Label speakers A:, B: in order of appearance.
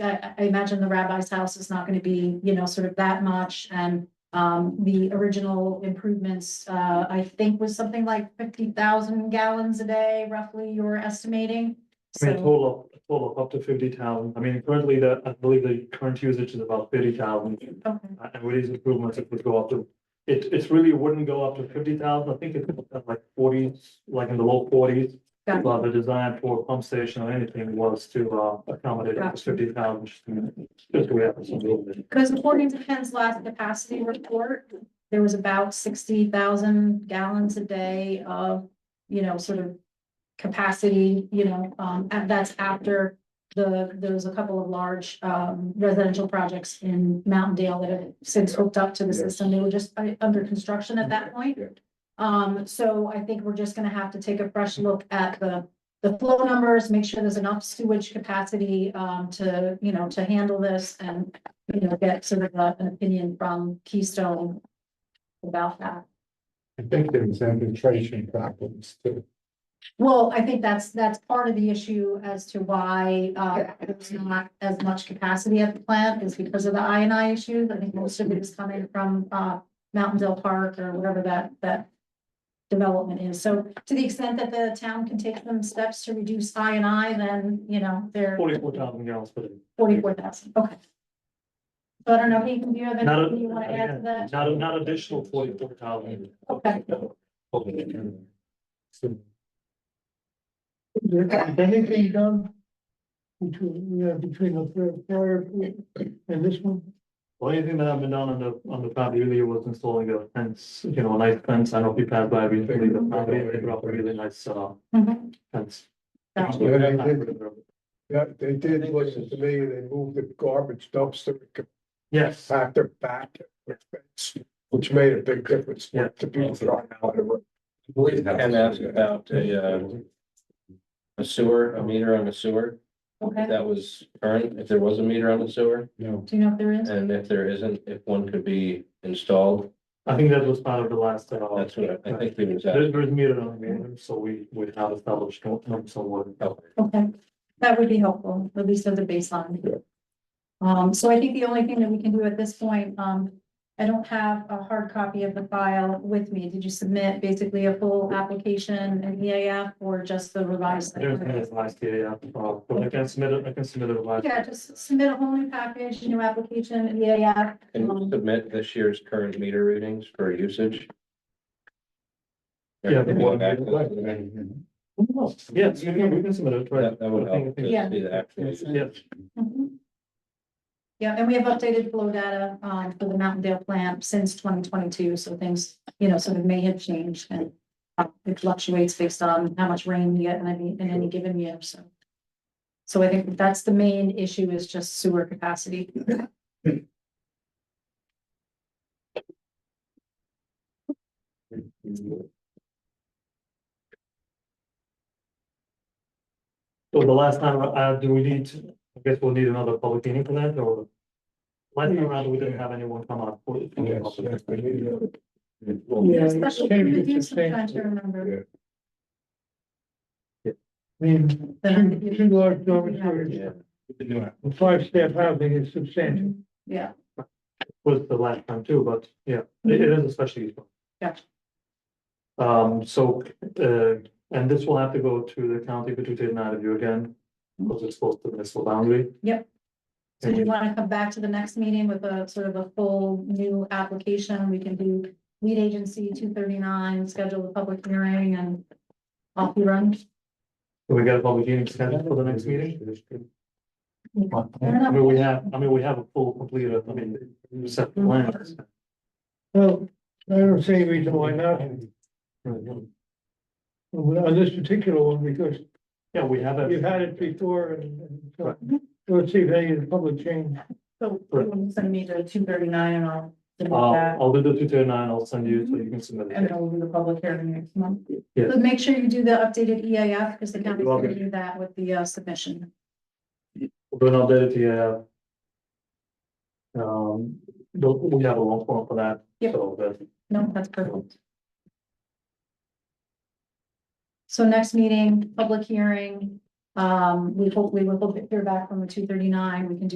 A: I, I imagine the rabbi's house is not gonna be, you know, sort of that much, and, um, the original improvements, uh, I think was something like fifty thousand gallons a day, roughly, you were estimating.
B: I
A: So,
B: mean, a total, of- a total of up to fifty thousand, I mean, currently the, I believe the current usage is about thirty thousand. Uh,
A: okay,
B: And with these improvements, it would go up to, it, it really wouldn't go up to fifty thousand, I think it's like forties, like in the low forties.
A: Got it.
B: But the design for a pump station or anything was to uh, accommodate up to
A: Gotcha.
B: fifty thousand, just the way happens a little bit.
A: because according to Penn's last capacity report, there was about sixty thousand gallons a day of, you know, sort of capacity, you know, um, and that's after the, there was a couple of large, um, residential projects in Mountain Dale that have since hooked up to the system. They were just uh, under construction at that point.
C: Yeah.
A: Um, so I think we're just gonna have to take a fresh look at the, the flow numbers, make sure there's enough sewage capacity, um, to, you know, to handle this and, you know, get sort of uh, an opinion from Keystone about that.
C: I think there's infiltration problems too.
A: Well, I think that's, that's part of the issue as to why, uh, there's not as much capacity at the plant is because of the I and I issues. I think most of it is coming from, uh, Mountain Dale Park or whatever that, that development is. So to the extent that the town can take some steps to reduce I and I, then, you know, they're
B: Forty-four thousand gallons per day.
A: forty-four thousand, okay. So I don't know, Ethan, do you have
B: Not,
A: anything you want to add to
B: a-
A: that?
B: not, a- not additional forty-four thousand.
A: Okay.
C: So
D: Anything done? Between, yeah, between the fir- fire and this one?
B: Well, anything that I've been done on the, on the property really was installing a fence, you know, a nice fence, I don't know if you passed by recently, the property, they brought a really nice, uh,
A: Mhm.
B: fence.
A: Gotcha.
D: Yeah, they did, listen to me, they moved the garbage dumpster,
B: Yes,
D: factor back. Which made a big difference to people throwing out. of it.
E: I believe Ken asked about a, uh, a sewer, a meter on a sewer, if
A: Okay,
E: that was current, if there was a meter on the sewer,
C: No,
A: do you know if there is?
E: and if there isn't, if one could be installed,
B: I think that was part of the last, uh,
E: that's what I think we was at.
B: there's, there's meter on the meter, so we, we have established, no, no, so we're-
A: Okay, that would be helpful, at least as a baseline. Um, so I think the only thing that we can do at this point, um, I don't have a hard copy of the file with me. Did you submit basically a full application and EAF or just the revised?
B: There's been this last year, yeah, uh, but I can submit it, I can submit it last.
A: Yeah, just submit a whole new package, new application, E and EAF.
E: Can we submit this year's current meter readings for usage?
B: Yeah.
E: Go back to the-
B: Yes, we can, we can submit it, right?
E: That that would
B: I think-
E: help
B: I
E: to
B: think-
A: Yeah.
E: see the actual.
B: Yes,
A: Mhm. Yeah, and we have updated flow data, um, for the Mountain Dale plant since twenty twenty-two, so things, you know, sort of may have changed and uh, it fluctuates based on how much rain you get in any, in any given year, so. So I think that's the main issue is just sewer capacity.
B: so the last time, uh, do we need, to- I guess we'll need another public meeting for that, or? Last time around, we didn't have anyone come out. for it.
C: Yes, yes, we need it.
D: Yeah, it's
A: Especially
D: changed,
A: if you do
D: it's changed.
A: sometimes, I remember.
D: I mean, two, two large dormitories,
E: Yeah.
D: and five staff housing is substantial.
A: Mm-hmm. Yeah,
B: was the last time too, but yeah, it it is especially useful.
A: Gotcha.
B: Um, so, uh, and this will have to go to the county pituitary nine of you again, because it's close to the municipal boundary.
A: Yep. so do you
B: And
A: want to come back to the next meeting with a sort of a full new application? We can do lead agency two thirty-nine, schedule a public hearing and off you run.
B: we got a public hearing scheduled for the next meeting?
A: Fair
B: I
A: enough.
B: mean, we have, I mean, we have a full completed, I mean, set plans.
D: Well, I don't see any reason why not, on this particular one, because
B: Yeah, we have. a-
D: You've had it before and, and so,
A: Mm-hmm.
D: let's see if any of the public change.
F: So you can send me the two thirty-nine and I'll submit
B: Uh,
F: that,
B: I'll do the two thirty nine, I'll send you, so you can submit
F: and
B: it.
F: then we'll do the public hearing next month.
A: But make sure you do the updated E EAF because the county's
B: You're
A: gonna
B: welcome.
A: do that with the uh, submission.
B: We'll do an update to you. Um, we'll- we have a long form for that,
A: Yep.
B: so that's
A: No, that's perfect. So next meeting, public hearing, Um, we hopefully will hear back from the two thirty-nine, we can do